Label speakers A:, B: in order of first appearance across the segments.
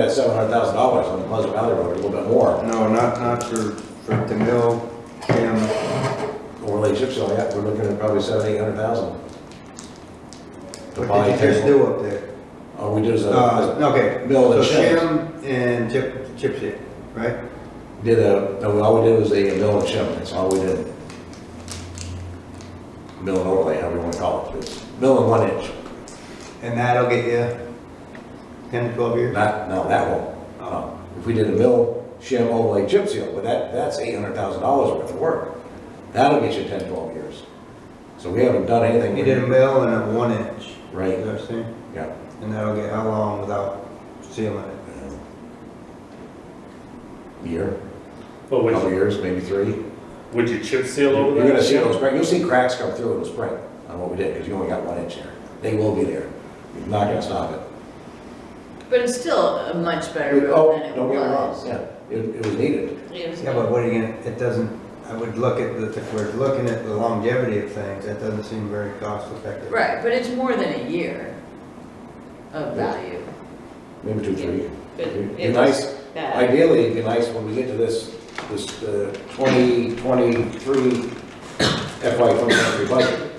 A: That's seven hundred thousand dollars on the Pleasant Valley Road, a little bit more.
B: No, not, not for, for the mill, Jim,
A: Overlay chip seal, yeah, we're looking at probably seven, eight hundred thousand. To
B: what
A: buy
B: did you just
A: a,
B: do up there?
A: all we did is,
B: Uh,
A: uh,
B: okay,
A: Mill
B: so
A: and chips.
B: Jim and Chip, Chip Seal, right?
A: did a, no, all we did was a mill and chip, that's all we did. Mill and overlay, however you wanna call it, it's mill and one inch,
B: And that'll get you ten to twelve years?
A: not, no, that won't. No. If we did a mill, shim, overlay, chip seal, but that, that's eight hundred thousand dollars worth of work. That'll get you ten, twelve years. So we haven't done anything.
B: You did a mill and a one inch, you
A: Right,
B: know what I'm saying?
A: yeah.
B: And that'll get how long without sealing it?
A: Year,
C: But
A: couple
C: would,
A: years, maybe three.
C: would you chip seal over that?
A: You're gonna see those cracks, you'll see cracks come through in the spring on what we did, because you only got one inch there. They will be there. You're not gonna stop it.
D: But it's still a much better
A: Oh,
D: road than it
A: don't get me wrong,
D: was.
A: Yeah, it, it was needed.
D: It was-
B: Yeah, but what are you gonna, it doesn't, I would look at, the if we're looking at the longevity of things, that doesn't seem very cost effective.
D: Right, but it's more than a year of value,
A: Maybe two, three.
D: but
A: It'd be
D: it was
A: nice,
D: bad.
A: ideally, it'd be nice when we get to this, this, uh, twenty twenty-three FY twenty twenty-three budget.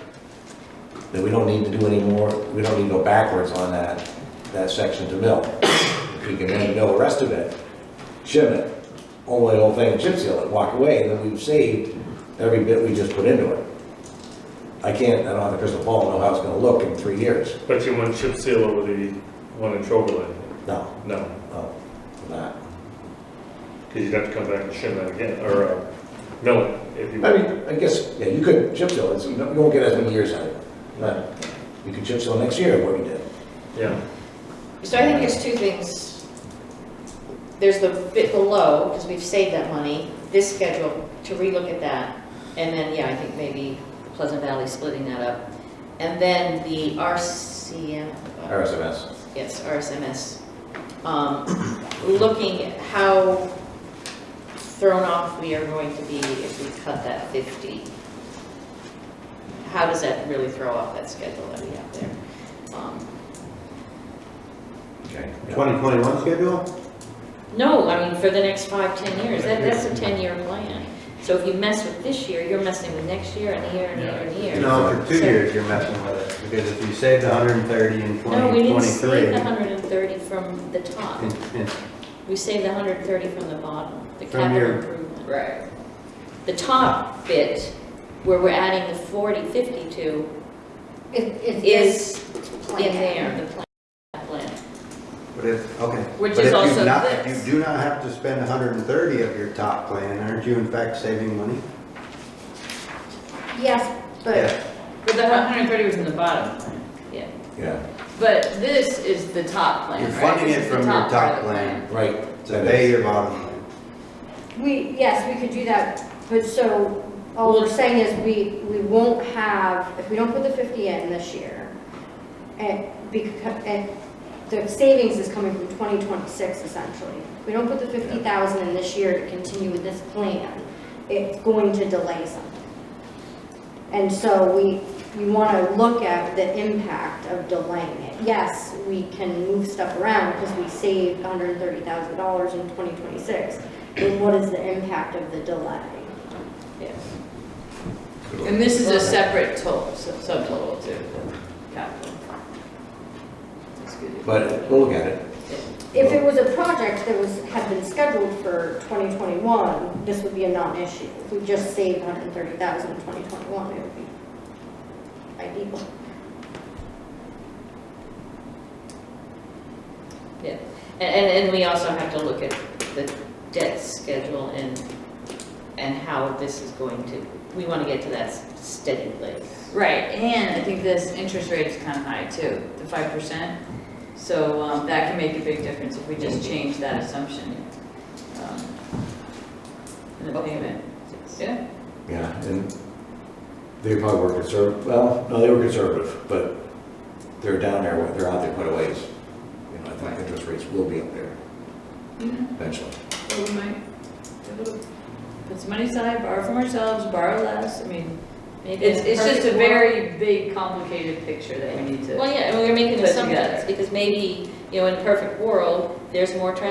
A: That we don't need to do any more, we don't need to go backwards on that, that section to mill. If we can then mill the rest of it, shim it, all the whole thing, and chip seal it, walk away, and then we've saved every bit we just put into it. I can't, I don't have the crystal ball, to know how it's gonna look in three years.
C: But you wouldn't chip seal over the one in Troberlin?
A: No,
C: No,
A: no, not.
C: because you'd have to come back and shim that again, or, uh, mill it, if you.
A: I mean, I guess, yeah, you could chip seal, it's, you don't- you won't get as many years out of it, but you could chip seal next year, what we did.
C: Yeah,
E: So I think there's two things. There's the bit below, because we've saved that money, this schedule, to relook at that. And then, yeah, I think maybe Pleasant Valley splitting that up. And then the RCM.
A: RSMS.
E: Yes, RSMS. Um, Looking at how thrown off we are going to be if we cut that 50. How does that really throw off that schedule that we have there? Um,
A: Okay.
B: Twenty twenty-one schedule?
E: No, I mean, for the next five, 10 years, that, that's a 10-year plan. So if you mess with this year, you're messing with next year and the year and the year and the year.
B: No, for two
E: So-
B: years you're messing with it, because if you saved hundred and thirty in
E: No, we
B: twenty
E: didn't save the
B: twenty-three.
E: 130 from the top. We saved the 130 from the bottom, the
B: From
E: capital
B: your-
E: improvement.
D: Right.
E: The top bit, where we're adding the 40, 50 to, is in there, the plan- that plan.
B: But if, okay.
D: Which
B: But
D: is
B: if you
D: also
B: not-
D: this.
B: You do not have to spend hundred and thirty of your top plan, aren't you in fact saving money?
E: Yes,
B: Yeah.
D: But the one hundred thirty was in the bottom plan,
E: Yeah,
A: Yeah,
D: but this is the top plan,
B: You're
D: right?
B: funding
D: This
B: it
D: is the
B: from your
D: part
B: top
D: of the
B: plan.
A: right.
B: So pay your bottom line.
F: We, yes, we could do that, but so, all we're saying is we, we won't have, if we don't put the 50 in this year, and because, and the savings is coming from 2026 essentially. If we don't put the 50,000 in this year to continue with this plan, it's going to delay something. And so we, we want to look at the impact of delaying it. Yes, we can move stuff around because we saved $130,000 in 2026, but what is the impact of the delay?
D: Yeah. And this is a separate total, sub- subtotal to the capital. That's good.
A: But we'll look at it.
F: If it was a project that was, had been scheduled for 2021, this would be a non-issue. If we just saved 130,000 in 2021, it would be ideal.
E: yeah. And, and, and we also have to look at the debt schedule and, and how this is going to, we want to get to that s- steady place.
D: Right, and I think this interest rate is kind of high too, the five percent. So um, that can make a big difference if we just change that assumption. um, In the payment. Yeah,
A: Yeah, and they probably were conservative, well, no, they were conservative, but they're down there, they're out there quite a ways. You know, I think interest rates will be up there
D: Mm-hmm.
A: eventually.
D: So we might be able to put some money aside, borrow from ourselves, borrow less, I mean,
E: Maybe in
D: it's,
E: a
D: it's just a
E: perfect world-
D: very big, complicated picture that we need to.
E: Well, yeah, and we're making
D: put
E: assumptions,
D: together.
E: because maybe you know, in a perfect world, there's more transportation